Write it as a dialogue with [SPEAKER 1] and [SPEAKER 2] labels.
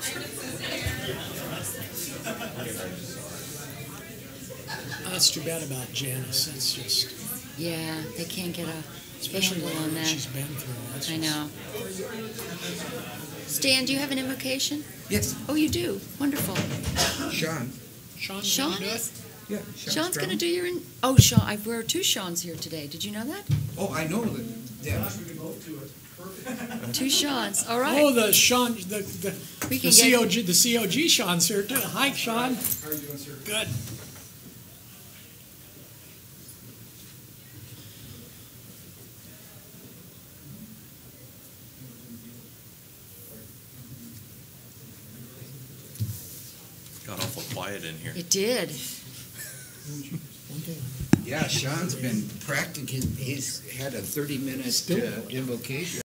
[SPEAKER 1] That's too bad about Janice. That's just,
[SPEAKER 2] Yeah, they can't get a
[SPEAKER 1] especially
[SPEAKER 2] handle on
[SPEAKER 1] when
[SPEAKER 2] that.
[SPEAKER 1] she's been through. That's
[SPEAKER 2] I
[SPEAKER 1] just-
[SPEAKER 2] know. Stan, do you have an invocation?
[SPEAKER 3] Yes,
[SPEAKER 2] Oh, you do. Wonderful.
[SPEAKER 3] Sean.
[SPEAKER 1] Sean,
[SPEAKER 2] Sean
[SPEAKER 1] Sean do
[SPEAKER 2] is-
[SPEAKER 1] it?
[SPEAKER 3] Yeah,
[SPEAKER 2] Sean's going to do your. In- oh, Sean. I, there are two Seans here today. Did you know that?
[SPEAKER 3] Oh, I know that. Yeah.
[SPEAKER 2] Two Seans. All right.
[SPEAKER 1] Oh, the Sean, the, the,
[SPEAKER 2] we
[SPEAKER 1] the
[SPEAKER 2] can get.
[SPEAKER 1] COG, the COG Sean's here too. Hi, Sean. How are you doing, sir? Good.
[SPEAKER 4] Got awful quiet in here.
[SPEAKER 2] It did.
[SPEAKER 3] Yeah, Sean's been practicing. He's had a 30 minute
[SPEAKER 1] Still.
[SPEAKER 3] uh, invocation.